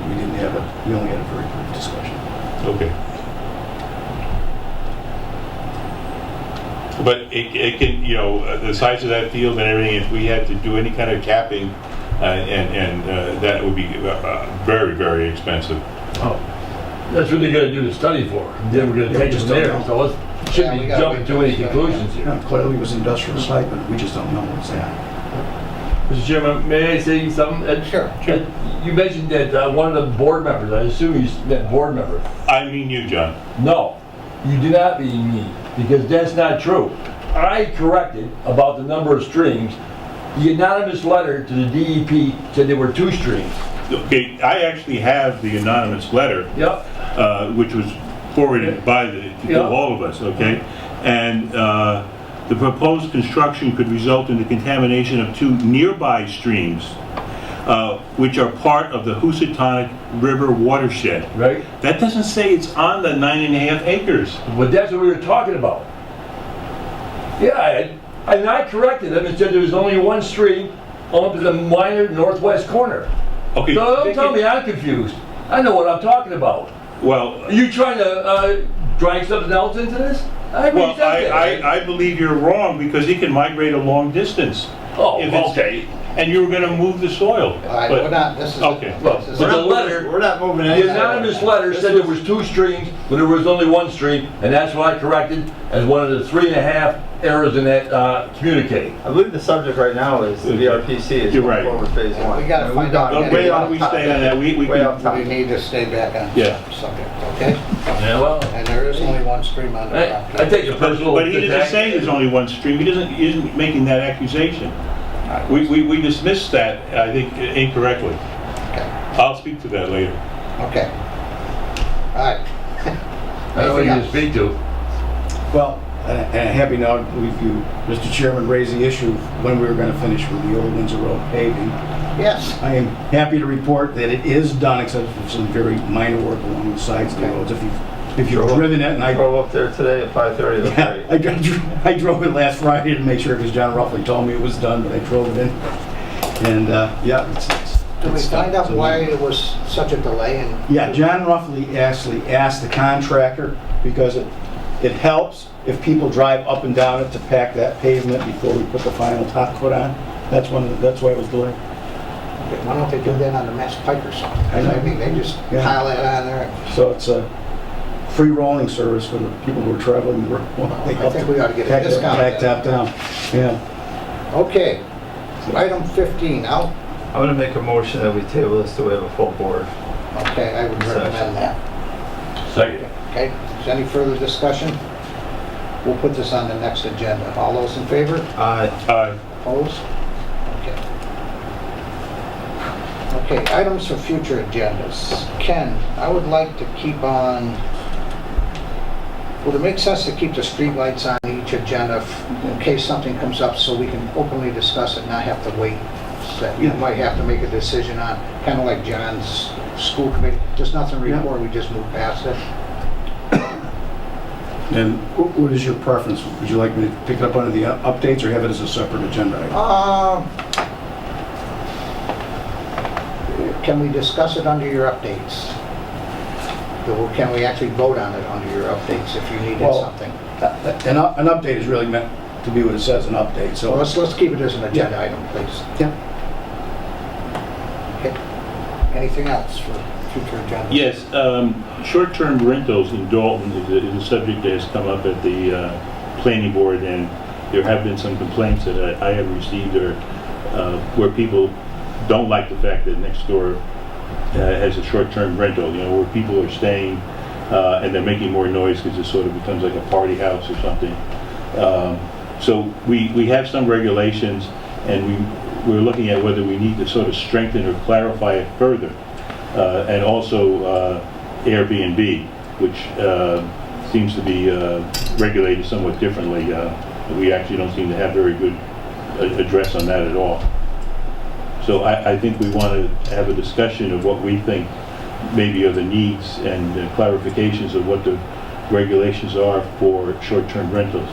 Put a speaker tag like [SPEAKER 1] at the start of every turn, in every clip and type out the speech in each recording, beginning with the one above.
[SPEAKER 1] have a, we only had a very brief discussion.
[SPEAKER 2] Okay. But it, it can, you know, uh, the size of that field and everything, if we had to do any kind of capping, uh, and, and uh, that would be uh, uh, very, very expensive.
[SPEAKER 3] Oh, That's what they're gonna do the study for, then we're
[SPEAKER 1] Yeah,
[SPEAKER 3] gonna take
[SPEAKER 1] just
[SPEAKER 3] it
[SPEAKER 1] don't
[SPEAKER 3] there,
[SPEAKER 1] know.
[SPEAKER 3] so let's, shouldn't
[SPEAKER 4] Yeah, we
[SPEAKER 3] be
[SPEAKER 4] gotta
[SPEAKER 3] jumping
[SPEAKER 4] wait
[SPEAKER 3] to
[SPEAKER 4] for
[SPEAKER 3] any
[SPEAKER 4] the study.
[SPEAKER 3] conclusions here.
[SPEAKER 1] Now, Clearly, it was industrial stipend, we just don't know what's that.
[SPEAKER 3] Mr. Chairman, may I say something? Ed?
[SPEAKER 4] Sure.
[SPEAKER 3] Ed, You mentioned that uh, one of the board members, I assume you meant board member.
[SPEAKER 2] I mean you, John.
[SPEAKER 3] No, you do not mean me, because that's not true. I corrected about the number of streams. The anonymous letter to the DEP said there were two streams.
[SPEAKER 2] Okay, I actually have the anonymous letter,
[SPEAKER 3] Yep.
[SPEAKER 2] uh, which was forwarded by the,
[SPEAKER 3] Yeah.
[SPEAKER 2] to all of us, okay? And uh, the proposed construction could result in the contamination of two nearby streams, uh, which are part of the Housatonic River watershed.
[SPEAKER 3] Right?
[SPEAKER 2] That doesn't say it's on the nine and a half acres.
[SPEAKER 3] But that's what we were talking about. Yeah, I, and I corrected them and said there was only one stream up in the minor northwest corner.
[SPEAKER 2] Okay.
[SPEAKER 3] No, don't tell me I'm confused. I know what I'm talking about.
[SPEAKER 2] Well,
[SPEAKER 3] Are you trying to uh, drag something else into this? I
[SPEAKER 2] well,
[SPEAKER 3] reached out
[SPEAKER 2] I,
[SPEAKER 3] there.
[SPEAKER 2] I, I believe you're wrong because he can migrate a long distance.
[SPEAKER 3] Oh,
[SPEAKER 2] if it's-
[SPEAKER 3] okay.
[SPEAKER 2] And you were gonna move the soil.
[SPEAKER 4] All right,
[SPEAKER 2] but-
[SPEAKER 4] we're not, this is.
[SPEAKER 2] Okay.
[SPEAKER 3] Look,
[SPEAKER 4] this is-
[SPEAKER 3] but the letter,
[SPEAKER 5] We're not moving
[SPEAKER 3] the
[SPEAKER 5] anything.
[SPEAKER 3] anonymous letter said there was two streams, but there was only one stream, and that's what I corrected as one of the three and a half errors in that uh, communique.
[SPEAKER 5] I believe the subject right now is the VRPC is
[SPEAKER 2] You're
[SPEAKER 5] going
[SPEAKER 2] right.
[SPEAKER 5] forward phase
[SPEAKER 4] Yeah,
[SPEAKER 5] one.
[SPEAKER 4] we gotta
[SPEAKER 5] I mean,
[SPEAKER 4] find out.
[SPEAKER 2] Uh,
[SPEAKER 5] don't-
[SPEAKER 2] Wait,
[SPEAKER 4] Way
[SPEAKER 2] how do we stay on that? We, we
[SPEAKER 5] Way
[SPEAKER 2] can,
[SPEAKER 5] off
[SPEAKER 4] We
[SPEAKER 5] topic.
[SPEAKER 4] need to stay back on
[SPEAKER 2] Yeah.
[SPEAKER 4] subject, okay?
[SPEAKER 3] Yeah, well,
[SPEAKER 4] And there is only one stream on the
[SPEAKER 3] I, I
[SPEAKER 4] property.
[SPEAKER 3] take your personal
[SPEAKER 2] but he didn't
[SPEAKER 3] attack.
[SPEAKER 2] say there's only one stream, he doesn't, he isn't making that accusation. We, we, we dismissed that, I think, incorrectly. I'll speak to that later.
[SPEAKER 4] Okay. All
[SPEAKER 3] I
[SPEAKER 4] right.
[SPEAKER 3] don't know who you speak to.
[SPEAKER 1] Well, and and happy now with you, Mr. Chairman, raised the issue of when we were going to finish with the old Windsor Road paving.
[SPEAKER 4] Yes,
[SPEAKER 1] I am happy to report that it is done, except for some very minor work along the sides of the roads. If you've, if you've
[SPEAKER 5] Sure.
[SPEAKER 1] driven it, Oh, and I
[SPEAKER 5] Drove up there today at five thirty, that's
[SPEAKER 1] Yeah,
[SPEAKER 5] right.
[SPEAKER 1] I dro- I drove it last Friday to make sure, because John Ruffley told me it was done, but I drove it in. And, uh, yeah, it's, it's.
[SPEAKER 4] do we
[SPEAKER 1] it's done.
[SPEAKER 4] find out
[SPEAKER 1] So-
[SPEAKER 4] why it was such a delay and?
[SPEAKER 1] Yeah, John Ruffley actually asked the contractor, because it, it helps if people drive up and down it to pack that pavement before we put the final top coat on. That's one, of the- that's why it was delayed.
[SPEAKER 4] Why don't they do that on the Mass Pike or something?
[SPEAKER 1] I know.
[SPEAKER 4] I mean, they just
[SPEAKER 1] Yeah.
[SPEAKER 4] pile that on there.
[SPEAKER 1] So it's a free rolling service for the people who are traveling. the road.
[SPEAKER 4] I think we ought to get a
[SPEAKER 1] Pack that-
[SPEAKER 4] discount
[SPEAKER 1] Pack
[SPEAKER 4] then.
[SPEAKER 1] that down, yeah.
[SPEAKER 4] Okay, item 15 out.
[SPEAKER 5] I'm gonna make a motion that we table this till we have a full board.
[SPEAKER 4] Okay, I would recommend that.
[SPEAKER 3] Second.
[SPEAKER 4] Okay, is any further discussion? We'll put this on the next agenda. All those in favor?
[SPEAKER 5] Aye.
[SPEAKER 2] Uh,
[SPEAKER 4] Opposed? Okay. Okay, items for future agendas. Ken, I would like to keep on, would it make sense to keep the streetlights on each agenda f- in case something comes up so we can openly discuss it and not have to wait? That you
[SPEAKER 1] Yeah.
[SPEAKER 4] might have to make a decision on, kind of like John's school committee, just nothing to
[SPEAKER 1] Yeah.
[SPEAKER 4] report, we just move past it.
[SPEAKER 1] And wh- what is your preference? Would you like me to pick it up under the u- updates or have it as a separate agenda? item?
[SPEAKER 4] Uh, Can we discuss it under your updates? Or Can we actually vote on it under your updates if you needed
[SPEAKER 1] Well-
[SPEAKER 4] something? uh,
[SPEAKER 1] An, u- an update is really meant to be what it says, an update,
[SPEAKER 4] So
[SPEAKER 1] so.
[SPEAKER 4] let's, let's keep it as an agenda item, please.
[SPEAKER 1] Yeah.
[SPEAKER 4] Okay. Anything else for future agenda?
[SPEAKER 2] Yes, um, short-term rentals in Dalton is a- is a subject that has come up at the uh, planning board, and there have been some complaints that I I have received or, uh, where people don't like the fact that next door uh, has a short-term rental, you know, where people are staying uh, and they're making more noise because it sort of becomes like a party house or something. Um, So we, we have some regulations, and we, we're looking at whether we need to sort of strengthen or clarify it further uh, and also uh, Airbnb, which uh, seems to be uh, regulated somewhat differently. Uh, We actually don't seem to have very good a- address on that at all. So I, I think we want to have a discussion of what we think maybe are the needs and the clarifications of what the regulations are for short-term rentals.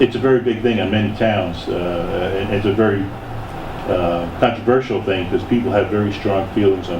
[SPEAKER 2] It's a very big thing on many towns, uh, and it's a very uh, controversial thing because people have very strong feelings on